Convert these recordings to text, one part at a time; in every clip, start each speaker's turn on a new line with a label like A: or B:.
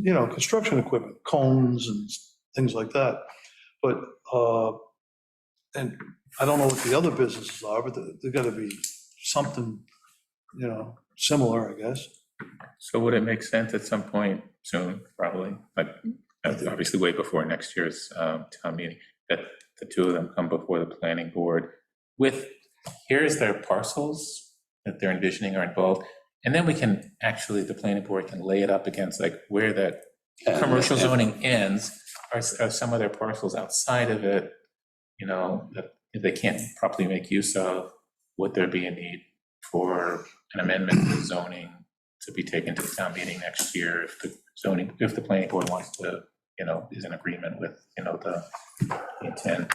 A: you know, construction equipment, cones and things like that. But, uh, and I don't know what the other businesses are, but they're gonna be something, you know, similar, I guess.
B: So would it make sense at some point soon, probably, but uh, obviously way before next year's um, town meeting, that the two of them come before the planning board with, here's their parcels that they're envisioning are involved, and then we can, actually, the planning board can lay it up against like where that commercial zoning ends, are s- are some of their parcels outside of it, you know, that they can't properly make use of, would there be a need for an amendment to zoning to be taken to the town meeting next year if the zoning, if the planning board wants to, you know, is in agreement with, you know, the intent.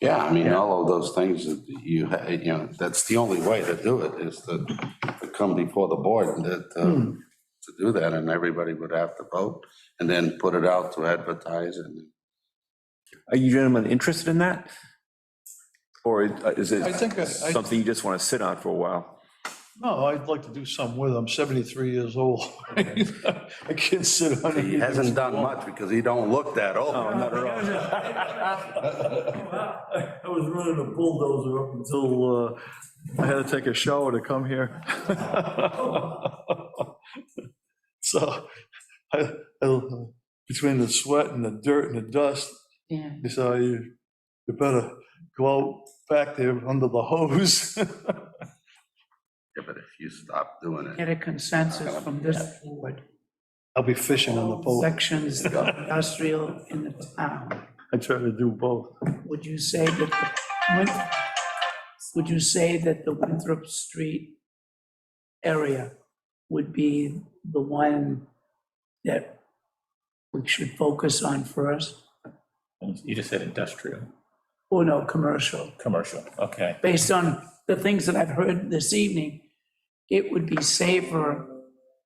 C: Yeah, I mean, all of those things that you, ha- you know, that's the only way to do it is to to come before the board and that, uh,
A: Hmm.
C: to do that and everybody would have to vote and then put it out to advertise and
D: Are you gentlemen interested in that? Or is
A: I
D: it
A: think, I, I-
D: something you just want to sit on for a while?
A: no, I'd like to do something with it. I'm 73 years old. I can't sit on it.
C: he hasn't done much because he don't look that old.
D: No, not at all.
A: I was running a bulldozer up until uh, I had to take a shower to come here. So I, I- between the sweat and the dirt and the dust,
E: Yeah.
A: they said, "Oh, you, you better go out back there under the hose.
C: Yeah, But if you stop doing it.
E: Get a consensus from this board,
A: I'll be fishing on the boat.
E: sections of industrial in the town.
A: I try to do both.
E: Would you say that, the Win- would you say that the Winthrop Street area would be the one that we should focus on first?
B: You just said industrial,
E: Oh, no, commercial.
B: commercial, okay.
E: based on the things that I've heard this evening, it would be safer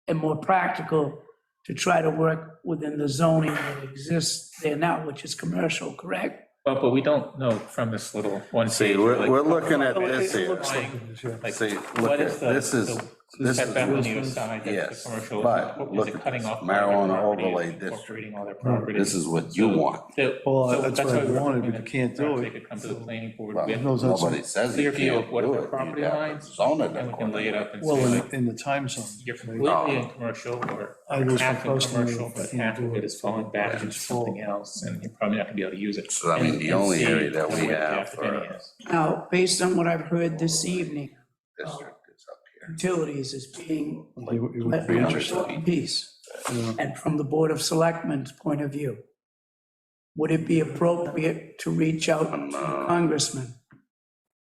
E: and more practical to try to work within the zoning that exists there now, which is commercial, correct?
B: But, but we don't know from this little one
C: See,
B: page,
C: we're,
B: like,
C: we're looking at this
A: It
C: here.
A: looks like it is, yeah.
B: like,
C: See, look
B: what is
C: at,
B: the,
C: this is,
B: the
C: this is,
B: setback on the other side, that's
C: yes,
B: the commercial.
C: but
B: Is
C: look
B: it
C: at
B: cutting
C: this
B: off? all their
C: marijuana
B: properties,
C: overlay district. Hmm,
B: Incorporating all their properties.
C: this is what you want.
B: The-
A: Well,
B: so
A: that's what I
B: why we're
A: wanted, but
B: hoping
A: you can't
B: that perhaps
A: do
B: They
A: it.
B: could come to the planning board
C: Well,
B: with,
A: No, that's-
C: Nobody says
B: Clear
C: you
B: view
C: can't
B: of what
C: do
B: the
C: it. You'd
B: property
C: have to
B: lines,
C: Zone it.
B: and we can lay it up and
A: Well,
B: say
A: in,
B: like,
A: in the time zone.
B: you're
A: right?
B: completely in commercial or
A: I was
B: half in
A: supposed to
B: commercial, but
A: if you
B: half
A: do
B: of it
A: it,
B: is falling back
A: it's
B: into something else and you're probably not gonna be able to use it.
C: So, I mean,
B: And-
C: the
B: and
C: only
B: see
C: area that we
B: what the
C: have
B: applicant
C: for-
B: is.
E: Now, based on what I've heard this evening,
C: District is up here.
E: utilities is being
A: It would- it
E: an
A: would be interesting.
E: important piece.
A: Yeah.
E: And from the Board of Selectmen's point of view, would it be appropriate to reach out
A: Um,
E: to
A: uh,
E: Congressman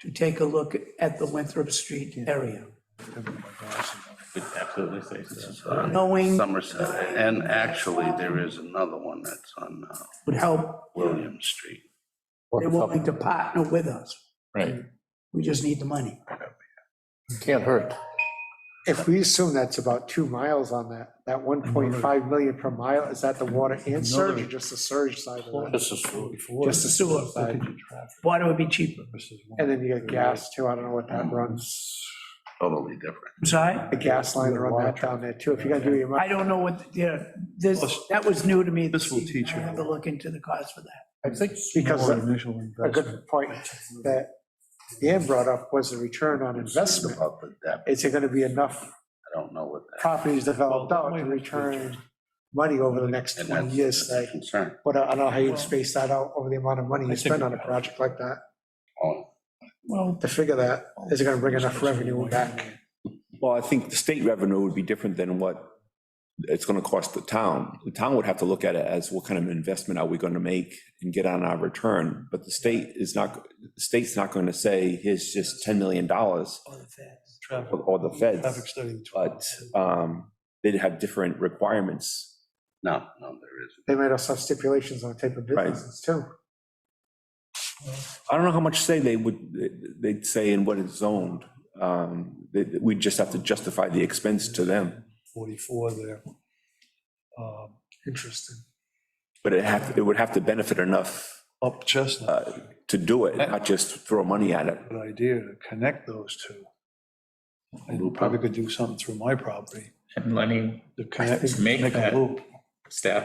E: to take a look at the Winthrop Street area?
B: Would absolutely say so.
E: Knowing
C: Somerset, and actually, there is another one that's on uh,
E: would help
C: William Street.
E: They're willing to partner with us.
B: Right.
E: We just need the money.
F: Can't hurt. If we assume that's about two miles on that, that 1.5 million per mile, is that the water and surge or just the surge side of that?
C: This is,
E: Just the sewer side. Water would be cheaper.
F: And then you got gas too, I don't know what that runs,
C: totally different.
E: I'm sorry?
F: the gas line run that down there too, if you're gonna do your,
E: I don't know what, yeah, this, that was new to me.
A: This will
E: evening.
A: teach
E: I
A: you.
E: have to look into the cost for that.
F: because
A: More
F: a
A: initial
F: a
A: investment.
F: good point that Dan brought up was the return on investment.
C: Up at that,
F: Is it gonna be enough
C: I don't know what that.
F: properties developed out to return money over the next
C: and
F: 20
C: that's-
F: years?
C: that's a
F: Like,
C: Concern.
F: what, I don't know how you'd space that out over the amount of money you spend on a project like that.
C: Oh,
E: Well,
F: to figure that, is it gonna bring enough revenue back?
D: Well, I think the state revenue would be different than what it's going to cost the town. The town would have to look at it as what kind of investment are we going to make and get on our return? But the state is not, the state's not going to say, here's just $10 million or
A: Traffic
D: or the
A: traffic
D: feds.
A: study.
D: But um, they'd have different requirements.
C: No, no, there isn't.
F: They might also have stipulations on the type of businesses too.
D: I don't know how much say they would, they'd say in what is zoned. Um, they- We'd just have to justify the expense to them,
A: 44 there. Um,
F: Interesting.
D: but it have, it would have to benefit enough
A: Up Chestnut,
D: to do it, not just throw money at it.
A: good idea to connect those two. And we probably could do something through my property
B: And Lenny
A: to connect.
B: Make
A: a
B: that-
A: loop.
B: staff